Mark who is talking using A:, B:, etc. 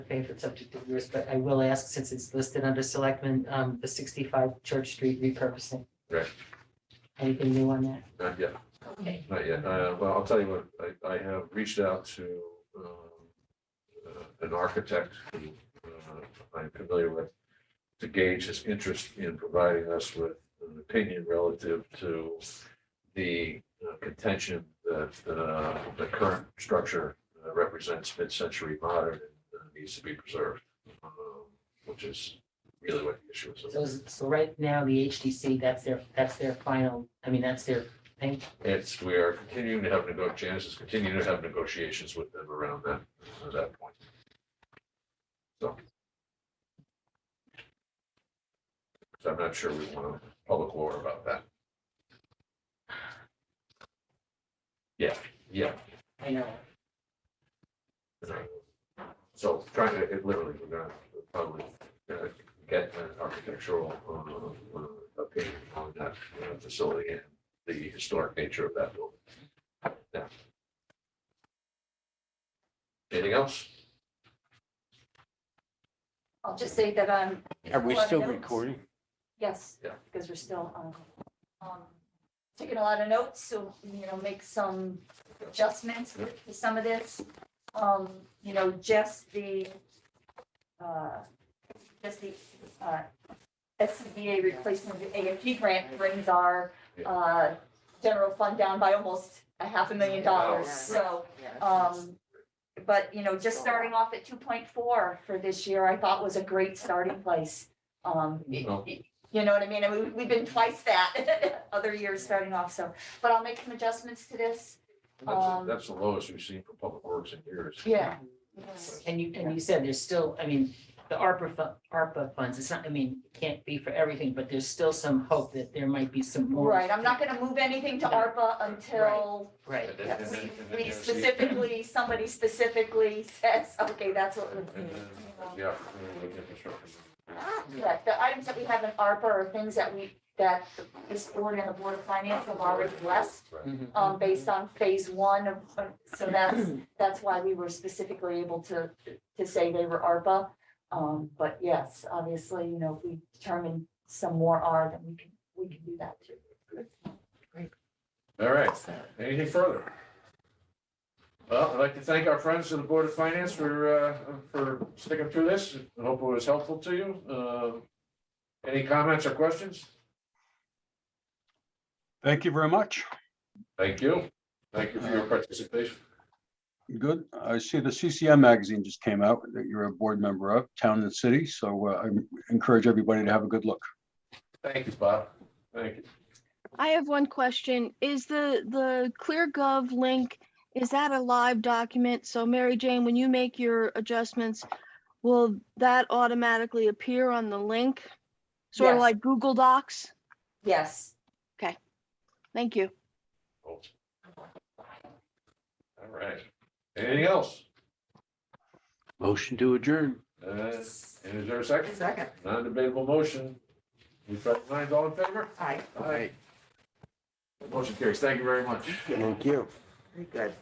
A: favorite subject of yours, but I will ask, since it's listed under selectmen, um, the sixty-five Church Street repurposing.
B: Right.
A: Anything new on that?
B: Not yet,
A: Okay.
B: Uh, not yet. Uh, well, I'll tell you what, I, I have reached out to, um, uh, an architect who, uh, I'm familiar with to gauge his interest in providing us with an opinion relative to the uh, contention that, uh, the current structure uh, represents mid-century modern and uh, needs to be preserved, um, which is really what the issue is.
A: So, is- so right now, the HDC, that's their, that's their final, I mean, that's their thing.
B: It's, we are continuing to have nego, Janice is continuing to have negotiations with them around that, at that point. So. So I'm not sure we want a public war about that. Yeah, yeah.
A: I know.
B: So trying to, it literally, we're gonna probably uh, get an architectural uh, uh, opinion on that uh, facility and the historic nature of that building. Yeah. Anything else?
C: I'll just say that I'm.
D: Are we
C: Well, I
D: still
C: know-
D: recording?
C: Yes.
B: Yeah.
C: Because we're still, um, um, taking a lot of notes, so, you know, make some adjustments with- to some of this. Um, you know, just the, uh, just the, uh, SCBA replacement of the AFG grant brings our, uh, general fund down by almost a half a million dollars, so.
B: Oh,
C: Um, but, you know, just starting off at two point four for this year, I thought was a great starting place. Um, it-
B: Oh.
C: it- you know what I mean? I mean, we've been twice that other years starting off, so, but I'll make some adjustments to this.
B: That's,
C: Um,
B: that's the lowest we've seen for public works in years.
C: Yeah.
A: And you, and you said there's still, I mean, the ARPA, fu- ARPA funds, it's not, I mean, it can't be for everything, but there's still some hope that there might be some more.
C: Right, I'm not gonna move anything to ARPA until
A: Right.
B: And then-
C: yeah,
B: and then-
C: we,
B: and then
C: we
B: there's the-
C: specifically, somebody specifically says, okay, that's what.
B: and then
C: we're-
B: there's The opportunity with infrastructure.
C: Correct, the items that we have in ARPA are things that we, that this board and the Board of Finance have already blessed.
B: Right.
A: Mhm.
C: um, based on phase one of, of- so that's, that's why we were specifically able to, to say they were ARPA. Um, but yes, obviously, you know, if we determine some more are, then we can, we can do that too.
B: All right, anything further? Well, I'd like to thank our friends of the Board of Finance for, uh, for sticking through this. I hope it was helpful to you. Uh, Any comments or questions?
E: Thank you very much.
B: Thank you. Thank you for your participation.
E: Good. I see the CCM magazine just came out that you're a board member of, Town and City. So uh, I encourage everybody to have a good look.
B: Thank you, Bob. Thank you.
F: I have one question. Is the, the ClearGov link, is that a live document? So Mary Jane, when you make your adjustments, will that automatically appear on the link? Sort of
C: Yes.
F: like Google Docs?
C: Yes,
F: Thank you.
B: All right. Anything else?
D: Motion to adjourn.
B: Uh, And is there a second? Second. Non-debatable motion. You front lines all in favor? Aye. Aye. Motion carries. Thank you very much.
D: Thank you.